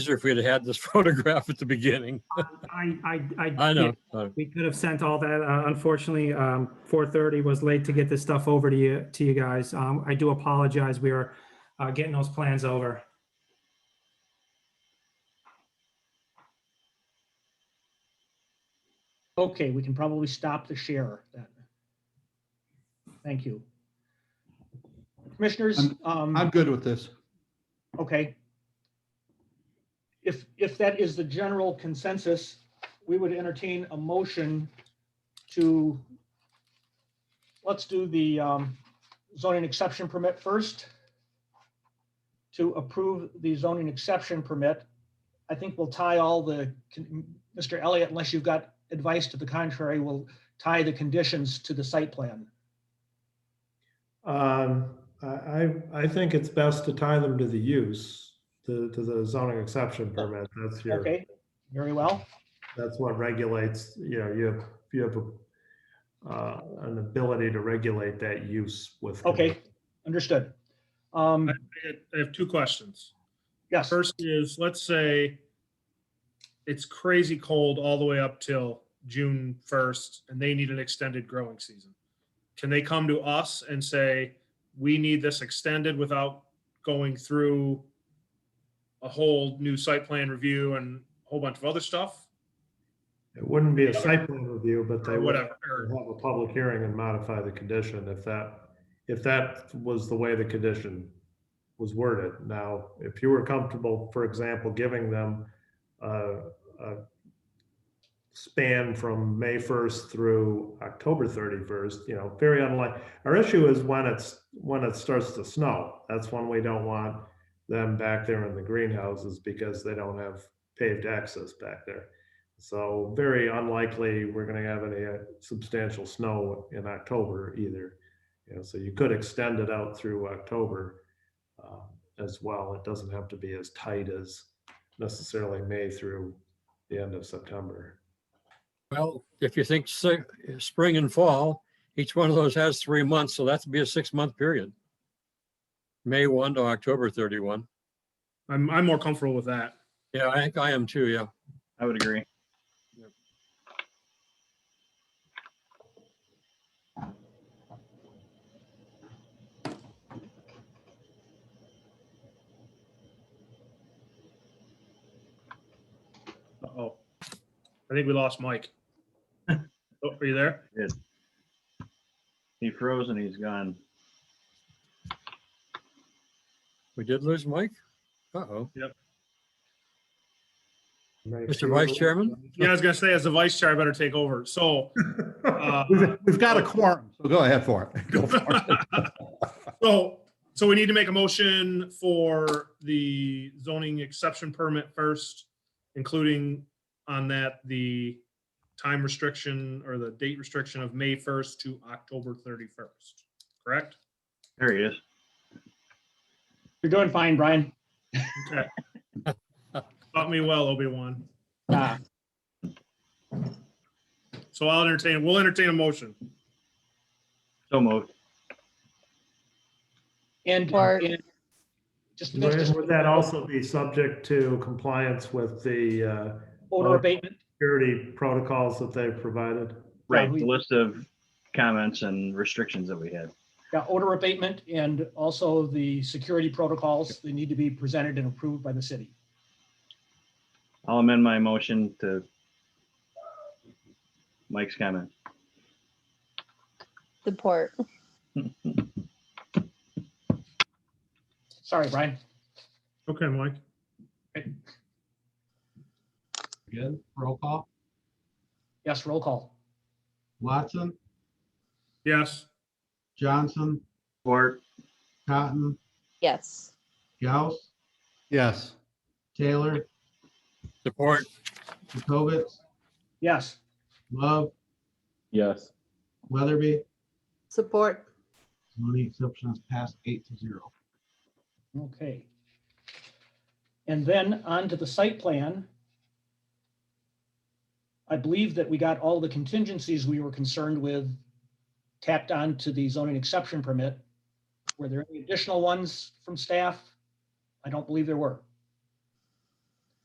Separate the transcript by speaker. Speaker 1: easier if we had had this photograph at the beginning.
Speaker 2: I, I, I.
Speaker 1: I know. uh,
Speaker 2: We could have sent all that. Uh, Unfortunately, um, 4:30 was late to get this stuff over to you, to you guys. Um, I do apologize. We are uh, getting those plans over.
Speaker 3: Okay, we can probably stop the share then. Thank you. Commissioners,
Speaker 4: I'm- I'm
Speaker 3: um,
Speaker 4: good with this.
Speaker 3: okay. If, if that is the general consensus, we would entertain a motion to, let's do the um, zoning exception permit first. To approve the zoning exception permit, I think we'll tie all the, con- Mr. Elliott, unless you've got advice to the contrary, we'll tie the conditions to the site plan.
Speaker 5: Um, I, I, I think it's best to tie them to the use, to, to the zoning exception permit. That's your,
Speaker 3: Okay, very well.
Speaker 5: that's what regulates, you know, you have, you have a, uh, an ability to regulate that use with.
Speaker 3: Okay, understood. Um,
Speaker 6: I had- I have two questions.
Speaker 3: yes,
Speaker 6: First is, let's say it's crazy cold all the way up till June first and they need an extended growing season. Can they come to us and say, we need this extended without going through a whole new site plan review and a whole bunch of other stuff
Speaker 5: It wouldn't be a site plan review, but they
Speaker 6: or
Speaker 5: would
Speaker 6: whatever? Or-
Speaker 5: have a public hearing and modify the condition if that, if that was the way the condition was worded. Now, if you were comfortable, for example, giving them uh, a span from May 1st through October 31st, you know, very unlikely. Our issue is when it's, when it starts to snow. That's when we don't want them back there in the greenhouses because they don't have paved access back there. So very unlikely we're going to have any uh, substantial snow in October either. You know, so you could extend it out through October um, as well. It doesn't have to be as tight as necessarily May through the end of September.
Speaker 1: Well, if you think si- spring and fall, each one of those has three months, so that'd be a six-month period. May 1 to October 31.
Speaker 6: I'm, I'm more comfortable with that.
Speaker 1: Yeah, I think I am too, yeah.
Speaker 7: I would agree.
Speaker 6: Uh-oh. I think we lost Mike. Oh, Are you there?
Speaker 7: He froze and he's gone.
Speaker 1: We did lose Mike? Uh-oh.
Speaker 5: Right.
Speaker 1: Mr. Vice Chairman?
Speaker 6: Yeah, I was gonna say, as the vice chair, I better take over. So uh,
Speaker 4: We've we've got a quorum, so Oh, go ahead for it. Go for it.
Speaker 6: So, so we need to make a motion for the zoning exception permit first, including on that the time restriction or the date restriction of May first to October thirty-first, correct?
Speaker 7: There he is.
Speaker 3: you're doing fine, Brian.
Speaker 6: Taught me well, Obi-Wan.
Speaker 3: Ah,
Speaker 6: So I'll entertain, we'll entertain a motion.
Speaker 7: So moved.
Speaker 3: And,
Speaker 8: Or-
Speaker 3: and just,
Speaker 5: Would
Speaker 3: just
Speaker 5: would that also be subject to compliance with the uh,
Speaker 3: odor abatement.
Speaker 5: security protocols that they've provided?
Speaker 3: Yeah,
Speaker 7: Right,
Speaker 3: we-
Speaker 7: the list of comments and restrictions that we had.
Speaker 3: Yeah, odor abatement and also the security protocols, they need to be presented and approved by the city.
Speaker 7: I'll amend my motion to Mike's comment.
Speaker 8: Support.
Speaker 3: Sorry, Brian.
Speaker 6: Okay, Mike.
Speaker 4: Again, roll call.
Speaker 3: Yes, roll call.
Speaker 4: Watson,
Speaker 6: Yes.
Speaker 9: Johnson,
Speaker 7: Or
Speaker 9: Cotton,
Speaker 8: Yes.
Speaker 9: Gauss,
Speaker 4: Yes.
Speaker 9: Taylor,
Speaker 1: Support.
Speaker 9: Jacobitz,
Speaker 3: Yes,
Speaker 9: Love,
Speaker 7: Yes.
Speaker 9: Weatherby.
Speaker 8: Support.
Speaker 9: Zoning exceptions passed eight to zero.
Speaker 3: okay. And then on to the site plan. I believe that we got all the contingencies we were concerned with tacked on to the zoning exception permit. Were there any additional ones from staff? I don't believe there were.